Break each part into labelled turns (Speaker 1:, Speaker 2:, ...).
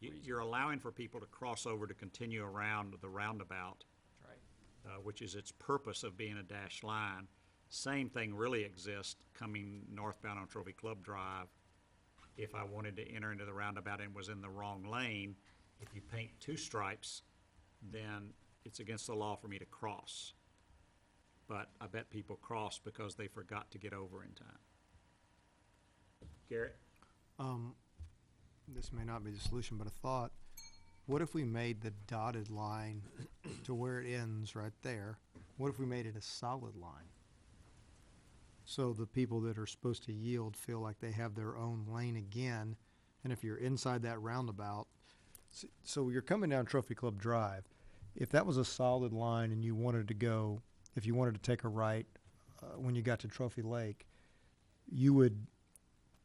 Speaker 1: you're allowing for people to cross over to continue around the roundabout,
Speaker 2: Right.
Speaker 1: uh, which is its purpose of being a dashed line, same thing really exists coming northbound on Trophy Club Drive. If I wanted to enter into the roundabout and was in the wrong lane, if you paint two stripes, then it's against the law for me to cross. But I bet people cross because they forgot to get over in time. Garrett?
Speaker 3: Um, this may not be the solution, but a thought. What if we made the dotted line to where it ends right there? What if we made it a solid line? So the people that are supposed to yield feel like they have their own lane again, and if you're inside that roundabout, s- so you're coming down Trophy Club Drive. If that was a solid line and you wanted to go, if you wanted to take a right uh, when you got to Trophy Lake, you would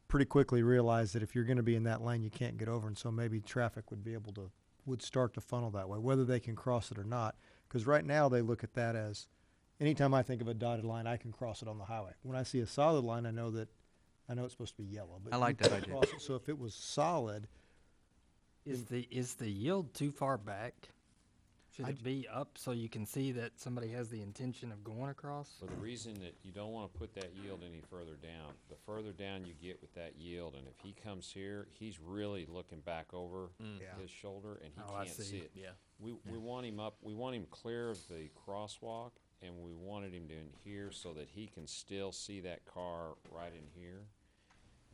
Speaker 3: pretty quickly realize that if you're going to be in that lane, you can't get over, and so maybe traffic would be able to would start to funnel that way, whether they can cross it or not. Because right now they look at that as, anytime I think of a dotted line, I can cross it on the highway. When I see a solid line, I know that, I know it's supposed to be yellow. But
Speaker 2: I
Speaker 3: you
Speaker 2: like that
Speaker 3: can't
Speaker 2: idea.
Speaker 3: cross it. So if it was solid,
Speaker 4: Is the, is the yield too far back? Should
Speaker 3: I
Speaker 4: it be up so you can see that somebody has the intention of going across?
Speaker 5: For the reason that you don't wanna put that yield any further down, the further down you get with that yield, and if he comes here, he's really looking back over
Speaker 3: Yeah.
Speaker 5: his shoulder and he
Speaker 4: Oh, I
Speaker 5: can't
Speaker 4: see.
Speaker 5: see it. We, we want him up, we want him clear of the crosswalk, and we wanted him to in here so that he can still see that car right in here.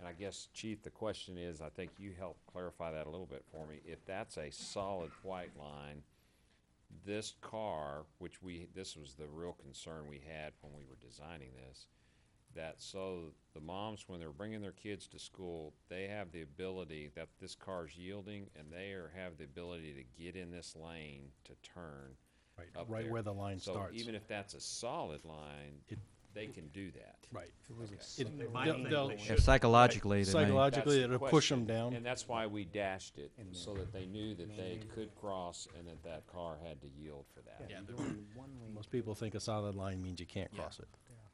Speaker 5: And I guess, Chief, the question is, I think you helped clarify that a little bit for me, if that's a solid white line, this car, which we, this was the real concern we had when we were designing this, that so the moms, when they're bringing their kids to school, they have the ability that this car's yielding and they are, have the ability to get in this lane to turn.
Speaker 6: Right,
Speaker 5: up
Speaker 6: right
Speaker 5: there.
Speaker 6: where the line
Speaker 5: So
Speaker 6: starts.
Speaker 5: Even if that's a solid line,
Speaker 6: It-
Speaker 5: they can do that.
Speaker 6: Right.
Speaker 1: They might think they should.
Speaker 2: If psychologically,
Speaker 5: That's
Speaker 2: they may.
Speaker 6: Psychologically,
Speaker 5: the
Speaker 6: it'll push
Speaker 5: question,
Speaker 6: them down.
Speaker 5: And that's why we dashed it, so that they knew that they could cross and that that car had to yield for that.
Speaker 6: Most people think a solid line means you can't cross it.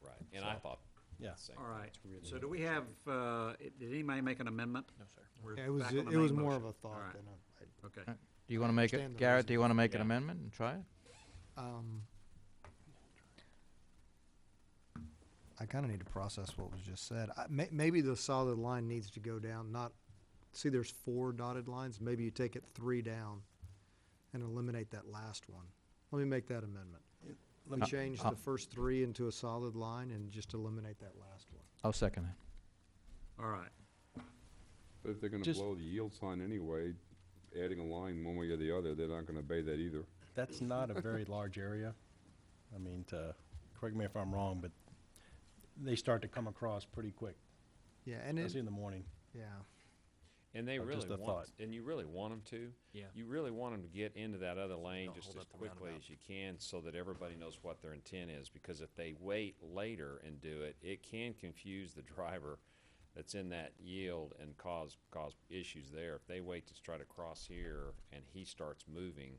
Speaker 5: Right, and I thought.
Speaker 6: Yeah.
Speaker 5: same.
Speaker 1: All right, so do we have, uh, did anybody make an amendment? No, sir.
Speaker 3: yeah, it was it was more of a thought than a. I-
Speaker 1: Okay,
Speaker 2: Do you want to make
Speaker 3: Understand
Speaker 2: it,
Speaker 3: the
Speaker 2: Garrett, do you want to make an
Speaker 5: Yeah.
Speaker 2: amendment and try it?
Speaker 3: Um, I kind of need to process what was just said. I, may, maybe the solid line needs to go down, not, see, there's four dotted lines, maybe you take it three down and eliminate that last one. Let me make that amendment. Uh, Let me change the first three into a solid line and just eliminate that last one.
Speaker 2: I'll second it.
Speaker 1: all right.
Speaker 7: But if they're gonna
Speaker 6: Just-
Speaker 7: blow the yield sign anyway, adding a line one way or the other, they're not gonna obey that either.
Speaker 6: That's not a very large area. I mean, to, correct me if I'm wrong, but they start to come across pretty quick,
Speaker 3: Yeah, and it,
Speaker 6: especially in the morning.
Speaker 3: yeah,
Speaker 5: And they
Speaker 6: Or
Speaker 5: really
Speaker 6: Uh, just a
Speaker 5: want,
Speaker 6: thought.
Speaker 5: and you really want them to. Yeah. You really want them to get into that other lane just as quickly as you can, so that everybody knows what their intent is, because if they wait later and do it, it can confuse the driver that's in that yield and cause, cause issues there. If they wait to try to cross here and he starts moving,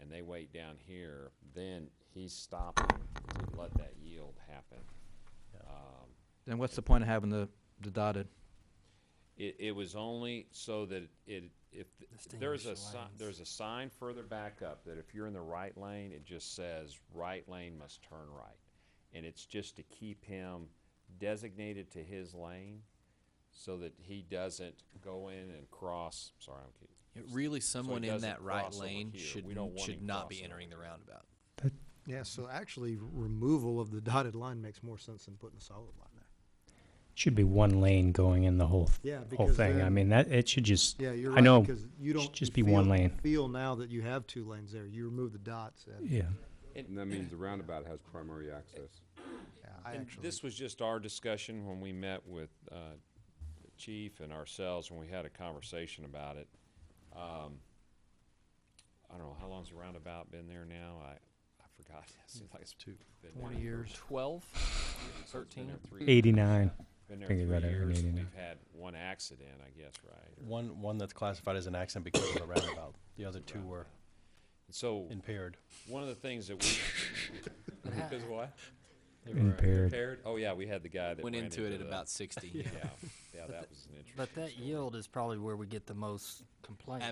Speaker 5: and they wait down here, then he's stopping to let that yield happen.
Speaker 2: Then what's the point of having the, the dotted?
Speaker 5: It, it was only so that it, if, th- there's a,
Speaker 4: Distinguish the
Speaker 5: si-
Speaker 4: lanes.
Speaker 5: there's a sign further back up that if you're in the right lane, it just says, right lane must turn right. And it's just to keep him designated to his lane so that he doesn't go in and cross, sorry, I'm kidding.
Speaker 8: Yeah, Really, someone in
Speaker 5: doesn't
Speaker 8: that right
Speaker 5: cross over
Speaker 8: lane
Speaker 5: here.
Speaker 8: should,
Speaker 5: We don't want
Speaker 8: should
Speaker 5: him
Speaker 8: not be
Speaker 5: crossing over
Speaker 8: entering the
Speaker 5: here.
Speaker 8: roundabout.
Speaker 3: yeah, so actually removal of the dotted line makes more sense than putting a solid line there.
Speaker 9: Should be one lane going in the whole th-
Speaker 3: Yeah,
Speaker 9: whole
Speaker 3: because
Speaker 9: thing. I
Speaker 3: then-
Speaker 9: mean that it should just.
Speaker 3: Yeah, you're
Speaker 9: I know.
Speaker 3: right, because you
Speaker 9: it
Speaker 3: don't.
Speaker 9: should just
Speaker 3: you
Speaker 9: be one
Speaker 3: feel-
Speaker 9: lane.
Speaker 3: Feel now that you have two lanes there, you remove the dots, and
Speaker 9: Yeah.
Speaker 7: And that means the roundabout has primary access.
Speaker 3: Yeah, I
Speaker 5: And
Speaker 3: actually,
Speaker 5: This was just our discussion when we met with uh, the Chief and ourselves, and we had a conversation about it. Um, I don't know, how long's the roundabout been there now? I, I forgot. It seems like it's been there for-
Speaker 8: Twelve?
Speaker 5: so it's been there three-
Speaker 9: Eighty nine.
Speaker 5: Been there three
Speaker 9: Think about it,
Speaker 5: years, and
Speaker 9: 89.
Speaker 5: we've had one accident, I guess, right? Or-
Speaker 6: One, one that's classified as an accident because of the roundabout. The other two were
Speaker 5: So,
Speaker 6: impaired.
Speaker 5: one of the things that we, because what?
Speaker 6: They were
Speaker 9: Impaired.
Speaker 5: Impaired? Oh, yeah, we had the guy that
Speaker 8: Went
Speaker 5: ran
Speaker 8: into it at
Speaker 5: the-
Speaker 8: about sixty.
Speaker 5: Yeah, yeah, that was an interesting.
Speaker 4: But that yield is probably where we get the most complaints.